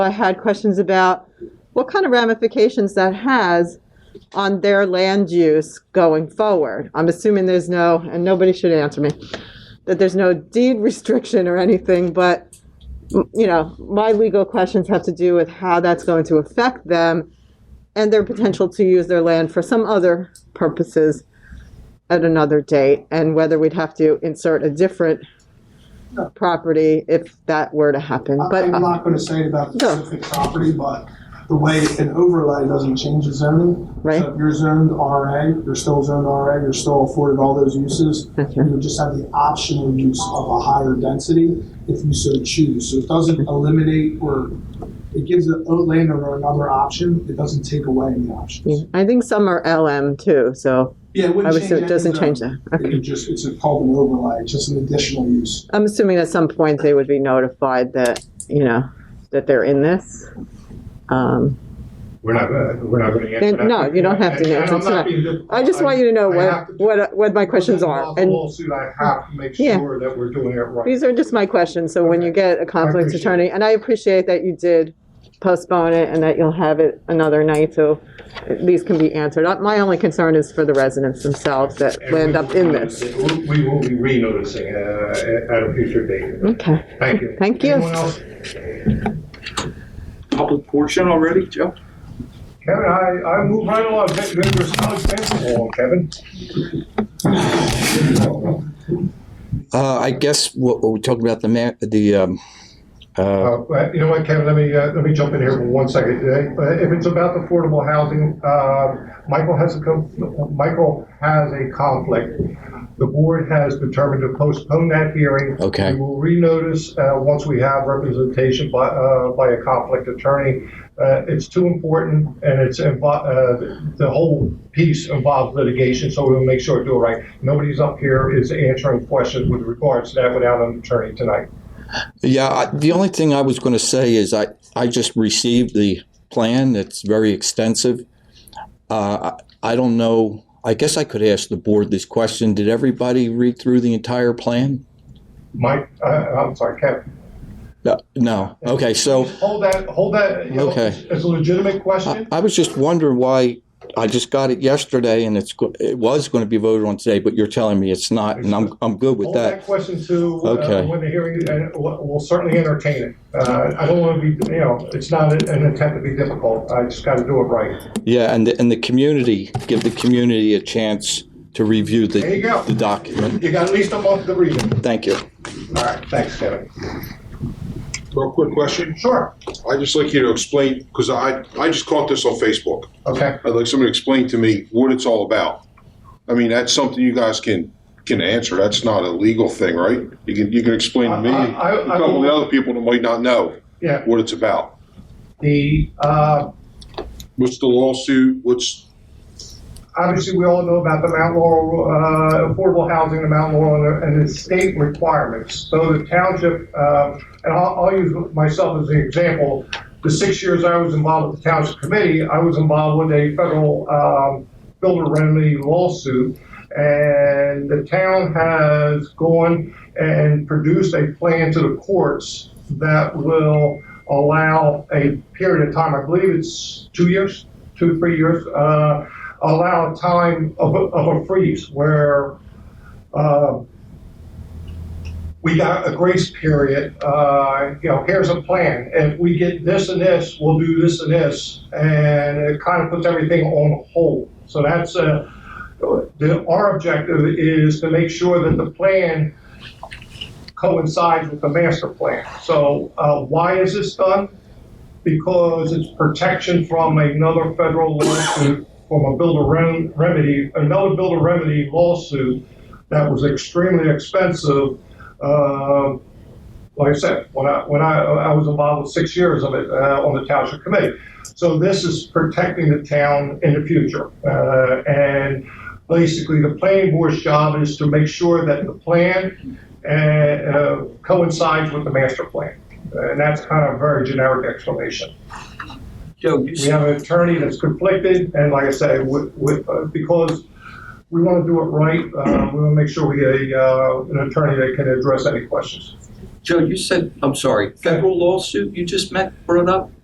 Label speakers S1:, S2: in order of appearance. S1: I had questions about what kind of ramifications that has on their land use going forward. I'm assuming there's no, and nobody should answer me, that there's no deed restriction or anything, but, m- you know, my legal questions have to do with how that's going to affect them and their potential to use their land for some other purposes at another date, and whether we'd have to insert a different property if that were to happen, but. uh,
S2: I'm not gonna say it about the
S1: No.
S2: specific property, but the way an overlay doesn't change the zoning.
S1: Right.
S2: So if you're zoned RA, you're still zoned RA, you're still afforded all those uses.
S1: Okay.
S2: You would just have the optional use of a higher density if you so choose. So it doesn't eliminate or, it gives the landowner another option, it doesn't take away any
S1: Yeah,
S2: options.
S1: I think some are LM too, so
S2: Yeah, it
S1: I
S2: wouldn't
S1: would
S2: change
S1: assume it doesn't
S2: anything.
S1: change that. Okay.
S2: It just, it's called an overlay, it's just an additional use.
S1: I'm assuming at some point they would be notified that, you know, that they're in this. Um,
S3: We're not, gonna- we're not going to answer
S1: Then-
S3: that.
S1: no, you don't have to
S3: And- and
S1: answer.
S3: I'm
S1: It's
S3: not
S1: not-
S3: being difficult.
S1: I just want you to know
S3: I
S1: what,
S3: have to-
S1: what, what my questions are.
S3: Because of the
S1: And
S3: lawsuit, I have to make
S1: Yeah.
S3: sure that we're doing it right.
S1: these are just my questions, so when you get a conflict
S3: appreciate it.
S1: attorney, and I appreciate that you did postpone it and that you'll have it another night, so these can be answered. Uh, My only concern is for the residents themselves that
S3: And we
S1: land up
S3: will
S1: in
S3: be
S1: this.
S3: noticing- We will be re-noticing uh, at a future date.
S1: Okay.
S3: Thank you.
S1: Thank you.
S3: Anyone else?
S4: public portion already, Joe?
S3: Kevin, I, I move right along. Vic- Vic, There's no expense along, Kevin.
S5: Uh, I guess what, what we're talking about the ma- the um, uh,
S3: Uh, uh, You know what, Kevin, let me, uh, let me jump in here for one second. Uh, If it's about affordable housing, uh, Michael has a, co- Michael has a conflict. The board has determined to postpone that hearing.
S5: Okay.
S3: We will renotice uh, once we have representation by, uh, by a conflict attorney. Uh, It's too important, and it's, invo- uh, the whole piece involves litigation, so we'll make sure to do it right. Nobody's up here is answering questions with regards to that without an attorney tonight.
S5: yeah. I, the only thing I was going to say is I I just received the plan. It's very extensive. Uh, I, I don't know. I guess I could ask the board this question. Did everybody read through the entire plan?
S3: Mike, uh, I'm sorry, Kevin.
S5: No. no. Okay. So
S3: Hold that, hold that. you know,
S5: Okay. Uh,
S3: it's- It's a legitimate
S5: I,
S3: question.
S5: I was just wondering why. I just got it yesterday, and it's go- it was going to be voted on today, but you're telling me it's not, and I'm I'm good with
S3: Hold that
S5: that.
S3: question to uh,
S5: Okay.
S3: when the hearing, and we'll we'll certainly entertain it. Uh, I don't want to be, you know, it's not an attempt to be difficult. I just got to do it right.
S5: Yeah, and the, and the community give the community a chance to review the
S3: There you go.
S5: the document.
S3: You got at least a month to read it.
S5: Thank you.
S3: All right, thanks, Kevin.
S6: Real quick question.
S3: Sure,
S6: I'd just like you to explain, because I, I just caught this on Facebook.
S3: okay.
S6: I'd like someone to explain to me what it's all about. I mean, that's something you guys can, can answer. That's not a legal thing, right? You can, you can explain to me,
S3: I-
S6: and
S3: I- I-
S6: a couple of the other people that might not know
S3: Yeah,
S6: what it's about.
S3: the, uh,
S6: What's the lawsuit? What's,
S3: obviously, we all know about the Mount Laurel, uh, affordable housing in Mount Laurel and the- and the state requirements. So the township, uh, and I'll, I'll use myself as an example. The six years I was involved with the township committee, I was involved with a federal, um, builder remedy lawsuit. And the town has gone and produced a plan to the courts that will allow a period of time, I believe it's two years, two, three years, uh, allow a time of, a- of a freeze where uh, we got a grace period. Uh, you know, here's a plan. If we get this and this, we'll do this and this, and it kind of puts everything on hold. So that's uh, the, our objective is to make sure that the plan coincides with the master plan. So uh, why is this done? because it's protection from another federal lawsuit from a builder rem- remedy, another builder remedy lawsuit that was extremely expensive. Um like I said, when I when I, I was involved with six years of it uh, on the township committee, so this is protecting the town in the future. Uh, and basically, the planning board's job is to make sure that the plan uh, uh, coincides with the master plan. Uh, And that's kind of a very generic explanation.
S4: Joe, you
S3: We have an attorney that's conflicted, and like I say, with, with, uh, because we um, want to do it right, uh, we want to make sure we get a, uh, an attorney that can address any questions.
S4: Joe, you said, I'm sorry, federal lawsuit you just met, brought up?